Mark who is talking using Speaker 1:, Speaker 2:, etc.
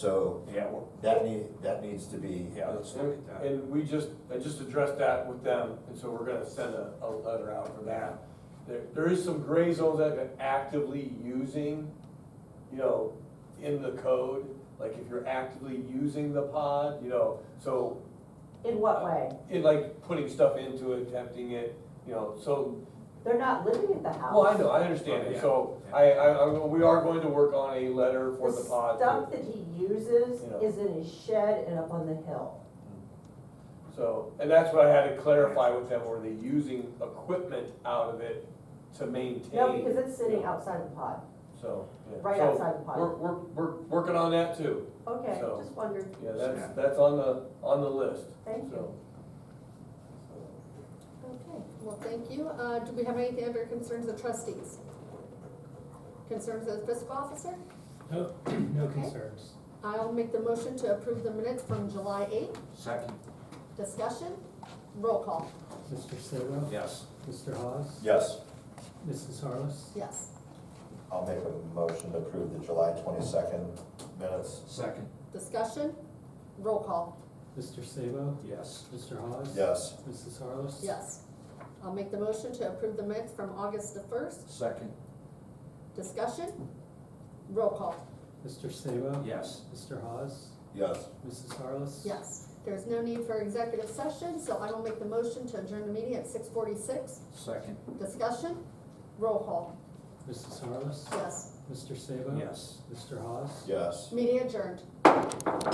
Speaker 1: So
Speaker 2: Yeah, well,
Speaker 1: that need, that needs to be,
Speaker 2: yeah, let's look
Speaker 3: And,
Speaker 2: at that.
Speaker 3: and we just, I just addressed that with them, and so we're gonna send a, a letter out for that. There, there is some gray zones that they're actively using, you know, in the code, like if you're actively using the pod, you know, so uh,
Speaker 4: In what way?
Speaker 3: in like putting stuff into it, tempting it, you know, so,
Speaker 4: They're not living at the house.
Speaker 3: well, I know, I understand
Speaker 2: Oh,
Speaker 3: it, so I, I, I- we are going to work on a letter for the pod. to-
Speaker 4: stuff that he uses
Speaker 3: Yeah.
Speaker 4: is in his shed and up on the hill.
Speaker 3: So, and that's what I had to clarify with them, were they using equipment out of it to maintain?
Speaker 4: No, because it's sitting outside the pod,
Speaker 3: So, yeah.
Speaker 4: right
Speaker 3: So
Speaker 4: outside the
Speaker 3: We're,
Speaker 4: pod.
Speaker 3: we're, we're working on that too,
Speaker 4: Okay,
Speaker 3: so-
Speaker 4: just wondered,
Speaker 3: yeah,
Speaker 2: Yeah.
Speaker 3: that's, that's on the, on the list,
Speaker 4: thank you.
Speaker 3: so.
Speaker 5: Okay, well, thank you. Uh, do we have anything under concerns of trustees? Concerns of fiscal officer?
Speaker 6: No, no
Speaker 5: Okay.
Speaker 6: concerns.
Speaker 5: I'll make the motion to approve the minutes from July eighth.
Speaker 2: Second,
Speaker 5: Discussion? Roll call,
Speaker 6: Mr. Sidwell?
Speaker 2: yes.
Speaker 6: Mr. Hawes?
Speaker 1: yes,
Speaker 6: Mrs. Harless?
Speaker 5: yes.
Speaker 1: I'll make a motion to approve the July twenty-second minutes,
Speaker 2: Second,
Speaker 5: Discussion? Roll call,
Speaker 6: Mr. Sidwell?
Speaker 2: yes.
Speaker 6: Mr. Hawes?
Speaker 1: yes,
Speaker 6: Mrs. Harless?
Speaker 5: yes. I'll make the motion to approve the minutes from August the first.
Speaker 2: Second,
Speaker 5: Discussion? Roll call,
Speaker 6: Mr. Sidwell?
Speaker 2: yes.
Speaker 6: Mr. Hawes?
Speaker 1: yes,
Speaker 6: Mrs. Harless?
Speaker 5: yes. There's no need for executive session, so I will make the motion to adjourn the meeting at six forty-six.
Speaker 2: Second,
Speaker 5: Discussion? Roll call,
Speaker 6: Mrs. Harless?
Speaker 5: yes.
Speaker 6: Mr. Sidwell?
Speaker 2: yes.
Speaker 6: Mr. Hawes?
Speaker 1: yes.
Speaker 5: Meeting adjourned.